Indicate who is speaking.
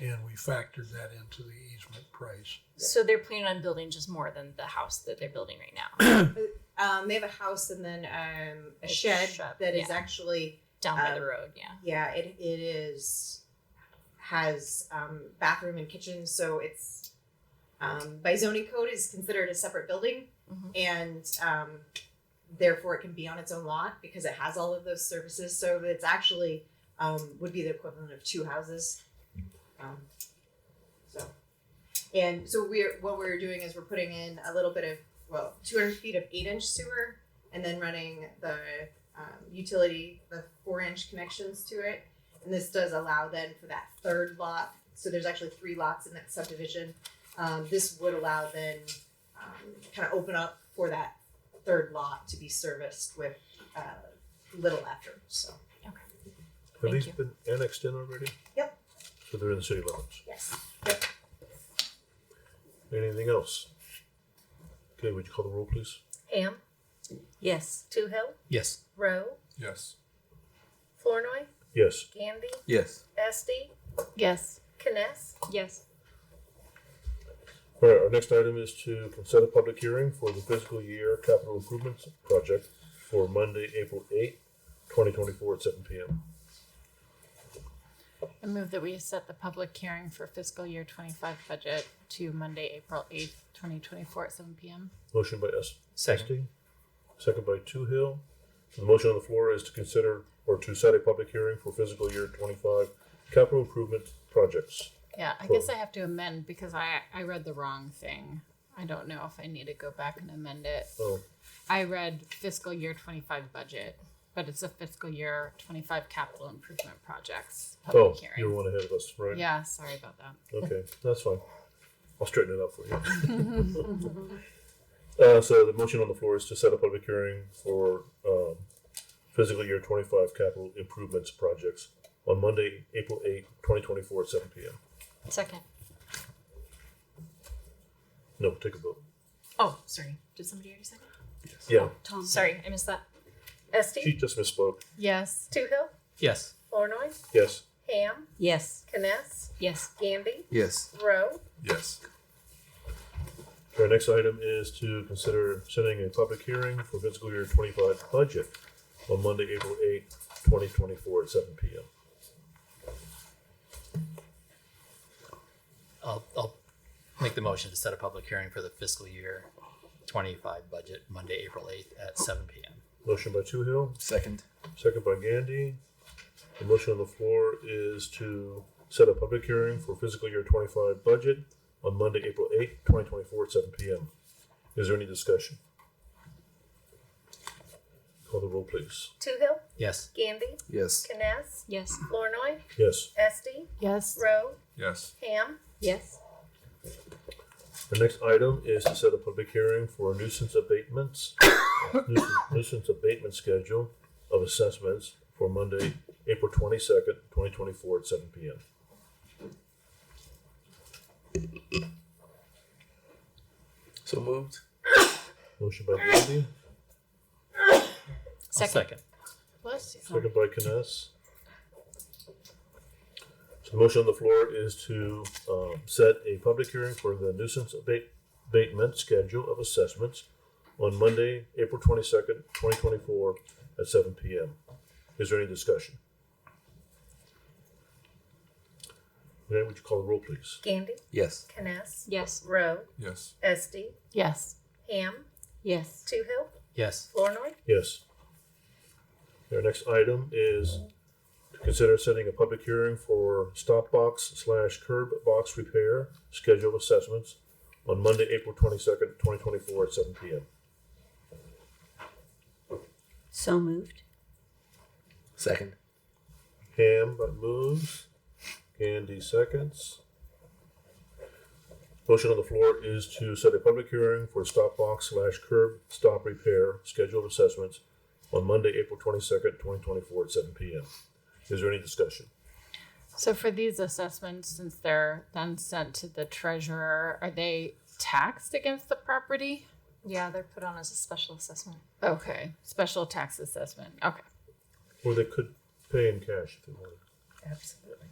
Speaker 1: and we factored that into the easement price.
Speaker 2: So they're planning on building just more than the house that they're building right now
Speaker 3: Um, they have a house and then um, a
Speaker 2: A
Speaker 3: shed,
Speaker 2: shed,
Speaker 3: that is
Speaker 2: yeah.
Speaker 3: actually
Speaker 2: down by the
Speaker 3: Um,
Speaker 2: road. Yeah.
Speaker 3: yeah it it is has um, bathroom and kitchen so it's um, by zoning code is considered a separate building
Speaker 2: Mhm.
Speaker 3: and um, therefore it can be on its own lot because it has all of those services so it's actually um, would be the equivalent of two houses um, so and so we're what we're doing is we're putting in a little bit of well 200 feet of eight inch sewer and then running the um, utility the four inch connections to it and this does allow then for that third lot so there's actually three lots in that subdivision um, this would allow then um, kind of open up for that third lot to be serviced with uh, little after so
Speaker 4: Have
Speaker 2: Thank
Speaker 4: these
Speaker 2: you.
Speaker 4: been annexed in already?
Speaker 3: Yep.
Speaker 4: So they're in the city limits.
Speaker 3: yes
Speaker 4: Anything else? Okay, would you call the roll, please?
Speaker 5: Ham,
Speaker 6: Yes.
Speaker 5: Toohill,
Speaker 7: Yes.
Speaker 5: Rowe,
Speaker 1: Yes.
Speaker 5: Flournoy,
Speaker 4: Yes.
Speaker 5: Gandy,
Speaker 7: Yes.
Speaker 5: Esty,
Speaker 6: Yes.
Speaker 5: Kness,
Speaker 2: Yes.
Speaker 4: All right, our next item is to consent a public hearing for the fiscal year capital improvements project for Monday, April eighth, twenty twenty-four at seven P M.
Speaker 6: I move that we set the public hearing for fiscal year twenty-five budget to Monday, April eighth, twenty twenty-four at seven PM.
Speaker 4: Motion by S.
Speaker 7: Second.
Speaker 4: Esty, Second by Two Hill. The motion on the floor is to consider or to set a public hearing for fiscal year twenty-five capital improvement projects.
Speaker 6: Yeah, I guess I have to amend because I, I read the wrong thing. I don't know if I need to go back and amend it.
Speaker 4: Oh,
Speaker 6: I read fiscal year twenty-five budget, but it's a fiscal year twenty-five capital improvement projects
Speaker 4: oh,
Speaker 6: public
Speaker 4: you were
Speaker 6: hearing.
Speaker 4: one ahead of us, right?
Speaker 6: Yeah, sorry about that.
Speaker 4: Okay, that's fine. I'll straighten it out for you. Uh, so the motion on the floor is to set up a public hearing for, um, fiscal year twenty-five capital improvements projects on Monday, April eighth, twenty twenty-four at seven P M.
Speaker 2: Second.
Speaker 4: No, take a vote.
Speaker 2: Oh, sorry. Did somebody already second?
Speaker 4: Yeah,
Speaker 2: Tom. Sorry, I missed that.
Speaker 4: she
Speaker 5: Esty,
Speaker 4: just misspoke.
Speaker 6: Yes.
Speaker 5: Toohill,
Speaker 7: Yes.
Speaker 5: Flournoy,
Speaker 4: Yes,
Speaker 5: Ham,
Speaker 6: Yes.
Speaker 5: Kness,
Speaker 2: Yes.
Speaker 5: Gandy,
Speaker 7: Yes.
Speaker 5: Rowe,
Speaker 1: Yes.
Speaker 4: our next item is to consider setting a public hearing for fiscal year twenty-five budget on Monday, April eighth, twenty twenty-four at seven P M.
Speaker 7: I'll, I'll make the motion to set a public hearing for the fiscal year twenty-five budget, Monday, April eighth at seven PM.
Speaker 4: Motion by Two Hill,
Speaker 7: Second.
Speaker 4: Second by Gandy. The motion on the floor is to set a public hearing for fiscal year twenty-five budget on Monday, April eighth, twenty twenty-four, at seven PM. Is there any discussion? Call the roll, please.
Speaker 5: Toohill,
Speaker 7: Yes.
Speaker 5: Gandy,
Speaker 7: Yes.
Speaker 5: Kness,
Speaker 2: Yes.
Speaker 5: Flournoy,
Speaker 4: Yes.
Speaker 5: Esty,
Speaker 6: Yes.
Speaker 5: Rowe,
Speaker 1: Yes.
Speaker 5: Ham,
Speaker 2: Yes.
Speaker 4: The next item is to set a public hearing for nuisance abatements, nuisance- nuisance abatement schedule of assessments for Monday, April twenty-second, twenty twenty-four, at seven PM.
Speaker 8: So moved.
Speaker 4: Motion by Gandy,
Speaker 2: Second.
Speaker 7: Second.
Speaker 6: Bless you.
Speaker 4: Second by Kness. So the motion on the floor is to um, set a public hearing for the nuisance abate- abatement schedule of assessments on Monday, April twenty-second, twenty twenty-four at seven P M. Is there any discussion? Okay, would you call the roll, please?
Speaker 5: Gandy,
Speaker 7: Yes.
Speaker 5: Kness,
Speaker 2: Yes.
Speaker 5: Rowe,
Speaker 1: Yes.
Speaker 5: Esty,
Speaker 6: Yes.
Speaker 5: Ham,
Speaker 6: Yes.
Speaker 5: Toohill,
Speaker 7: Yes.
Speaker 5: Flournoy,
Speaker 4: Yes. Our next item is to consider setting a public hearing for stop box slash curb box repair schedule assessments on Monday, April twenty-second, twenty twenty-four at seven P M.
Speaker 6: So moved.
Speaker 8: Second.
Speaker 4: Ham moves, Andy seconds. Motion on the floor is to set a public hearing for stop box slash curb stop repair schedule assessments on Monday, April twenty-second, twenty twenty-four at seven P M. Is there any discussion?
Speaker 6: So for these assessments, since they're then sent to the treasurer, are they taxed against the property?
Speaker 2: Yeah, they're put on as a special assessment.
Speaker 6: Okay, special tax assessment. Okay.
Speaker 4: Or they could pay in cash if they wanted.
Speaker 5: absolutely.